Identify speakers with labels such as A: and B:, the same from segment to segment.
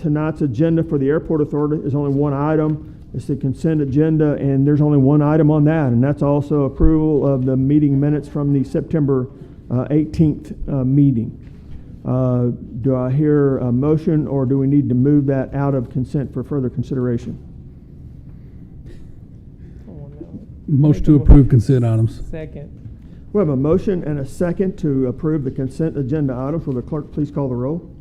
A: tonight's agenda for the airport authority is only one item. It's the consent agenda, and there's only one item on that, and that's also approval of the meeting minutes from the September uh, 18th uh, meeting. Uh, Do I hear a motion, or do we need to move that out of consent for further consideration?
B: Oh, no.
C: Motion to approve consent items.
B: Second.
A: We have a motion and a second to approve the consent agenda items. Will the clerk please call the roll?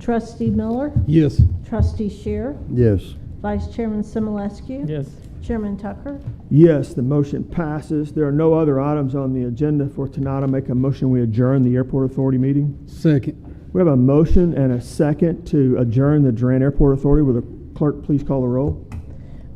D: Trustee Miller,
C: Yes.
D: Trustee Shear,
E: Yes.
D: Vice Chairman Simulescu.
B: Yes.
D: Chairman Tucker,
A: Yes, the motion passes. There are no other items on the agenda for tonight. I make a motion, we adjourn the airport authority meeting.
C: Second.
A: We have a motion and a second to adjourn the Durant Airport Authority. Will the clerk please call the roll?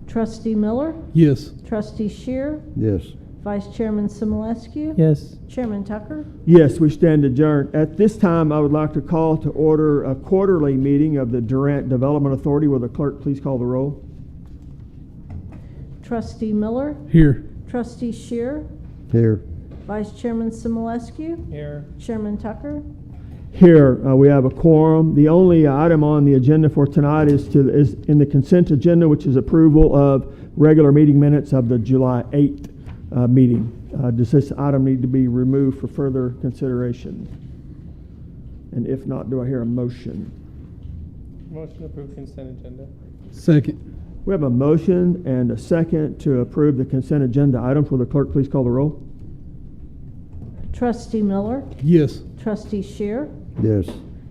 D: Trustee Miller,
C: Yes.
D: Trustee Shear,
E: Yes.
D: Vice Chairman Simulescu.
B: Yes.
D: Chairman Tucker,
A: Yes, we stand adjourned. At this time, I would like to call to order a quarterly meeting of the Durant Development Authority. Will the clerk please call the roll?
D: Trustee Miller,
C: Here.
D: Trustee Shear,
E: Here.
D: Vice Chairman Simulescu.
B: Here.
D: Chairman Tucker,
A: Here, uh, we have a quorum. The only item on the agenda for tonight is to, is in the consent agenda, which is approval of regular meeting minutes of the July 8th uh, meeting. Uh, Does this item need to be removed for further consideration? And if not, do I hear a motion?
B: Motion to approve consent agenda.
C: Second.
A: We have a motion and a second to approve the consent agenda items. Will the clerk please call the roll?
D: Trustee Miller,
C: Yes.
D: Trustee Shear,
E: Yes.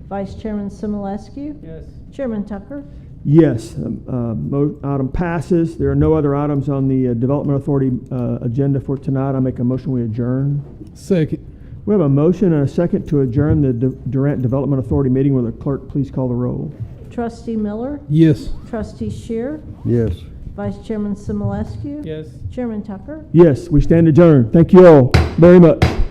D: Vice Chairman Simulescu.
B: Yes.
D: Chairman Tucker,
A: Yes, um, uh, mo- item passes. There are no other items on the uh, Development Authority uh, agenda for tonight. I make a motion, we adjourn.
C: Second.
A: We have a motion and a second to adjourn the Du- Durant Development Authority meeting. Will the clerk please call the roll?
D: Trustee Miller,
C: Yes.
D: Trustee Shear,
E: Yes.
D: Vice Chairman Simulescu.
B: Yes.
D: Chairman Tucker.
A: Yes, we stand adjourned. Thank you all very much.